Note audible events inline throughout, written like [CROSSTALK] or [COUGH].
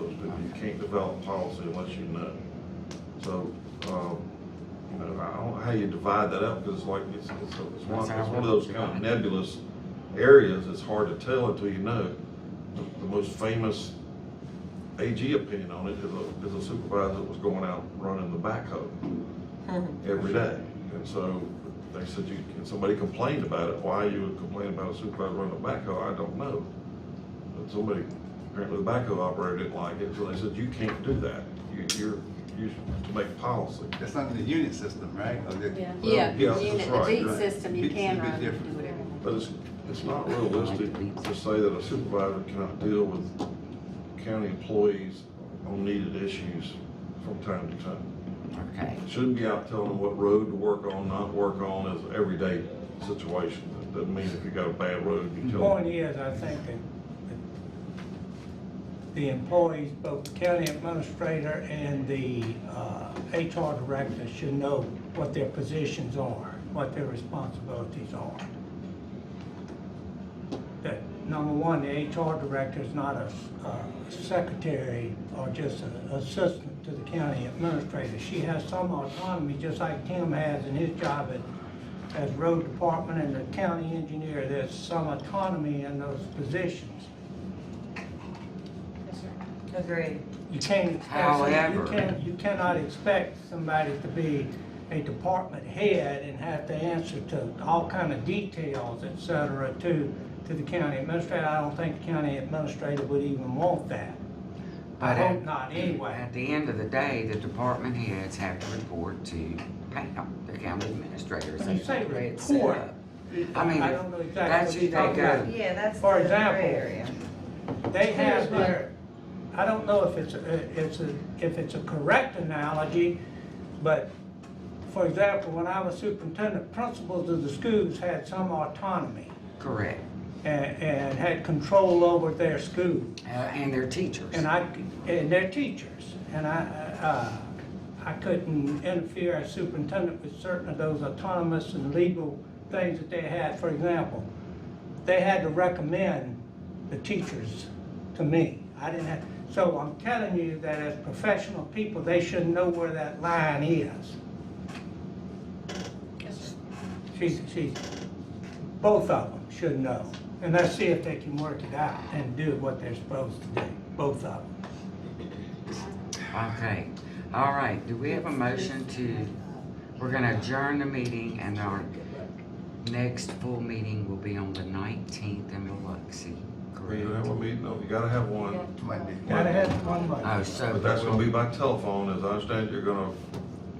you can't develop policy unless you know. So, um, you know, I don't know how you divide that up, because like, it's, it's, it's one, it's one of those kind of nebulous areas, it's hard to tell until you know. The- The most famous AG opinion on it is a, is a supervisor that was going out running the backhoe every day. And so they said you, and somebody complained about it, why you would complain about a supervisor running a backhoe, I don't know. But somebody, apparently the backhoe operator didn't like it, so they said, you can't do that, you, you're, you should to make policy. That's not in the unit system, right? Or the- Yeah. well, Yeah, yeah, unit, that's the right, beat right. system, you Beats is a can bit run, do different. whatever. But it's, it's not realistic to say that a supervisor cannot deal with county employees on needed issues from time to time. Okay, Shouldn't be out telling them what road to work on, not work on, is an everyday situation. That Doesn't mean if you got a bad road, you The tell them. Point is, I think that the employees, both the county administrator and the uh, HR director should know what their positions are, what their responsibilities are. That, number one, the HR director is not a s- a secretary or just an assistant to the county administrator. She has some autonomy, just like Tim has in his job at, as road department and the county engineer. There's some autonomy in those positions. Agreed. You can't expect, you However- can you cannot expect somebody to be a department head and have to answer to all kind of details, et cetera, to, to the county administrator. I don't think the county administrator would even want that. I but hope at, not, anyway. at the end of the day, the department heads have to report to Pam, the county administrators. When you say That's the way it's set report, up. I mean, I don't know that's exactly who what they you're go. talking Yeah, that's the For other example, area. about. They have Here's what- their, I don't know if it's, a- it's a, if it's a correct analogy, but for example, when I was superintendent, principals of the schools had some autonomy. Correct, and, and had control over their school uh, and their teachers. and I and their teachers and I uh, I couldn't interfere as superintendent with certain of those autonomous and legal things that they had. For example, they had to recommend the teachers to me. I didn't have. So I'm telling you that as professional people, they should know where that line is. She's, she's, both of them should know. And let's see if they can work it out and do what they're supposed to do, both of them. Okay, all right, do we have a motion to, we're gonna adjourn the meeting and our next full meeting will be on the nineteenth in Biloxi, You correct? have a meeting, no, you gotta have one, Might be. Gotta have one vote. Oh, so. but that's gonna be by telephone, as I understand, it, you're gonna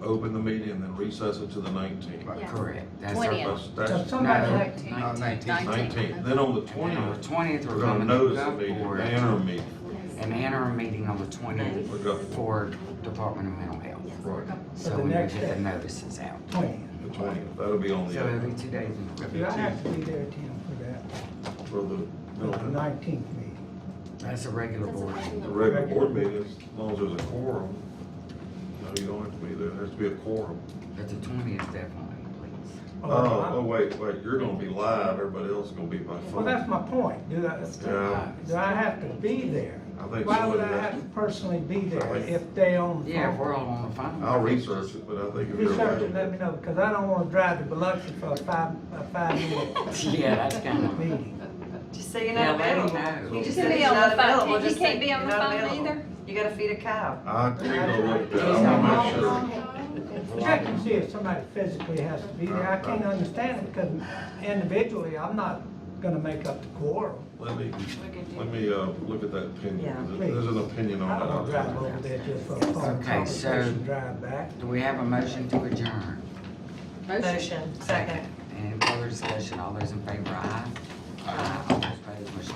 open the meeting and then recess it to the nineteenth. Right. Correct, that's our. 20th. So That's somebody, No, like- No, nineteen. nineteenth, then on the And then on the twentieth, twentieth, we're gonna notice the meeting, for the interim meeting. An interim meeting on the twentieth We're going. for Department of Mental Health. Right, So the we will next get the day. notices out. the twentieth, that'll be on the, So uh, every two days. in a row. do I have to be there, Tim, for that, for the, for the nineteenth meeting? That's a regular board. the regular board meeting, as long as there's a quorum. No, you don't have to be there, there has to be a quorum. But the twentieth definitely, please. Oh, oh, wait, wait, you're gonna be live, everybody else is gonna be by Well, phone. that's my point, do I, Yeah. do I have to be there? I think Why would I somebody has- have to personally be there Right. if they on the phone? Yeah, if we're all on the phone. I'll research it, but I think if you're Research and let me available. know, because I don't wanna drive to Biloxi for a five, a [LAUGHS] five-minute Yeah, that's kind of. [LAUGHS] meeting. Just say you're Yeah, not let him available. know. You just You said can be you're on not the phone. available. You Just say can't be on you're the not phone available. either? You gotta feed a cow. I agree with that, I wanna make sure. Check and see if somebody physically has to be there, I can't understand it, because individually, I'm not gonna make up the quorum. Let me, let me, uh, look at that Yeah, opinion, please. there's an opinion I don't on wanna that. drive over there just for a phone Okay, so- conversation, drive back. Do we have a motion to adjourn? Motion, second. Any further discussion? All those in favor, aye. Aye. All those opposed, motion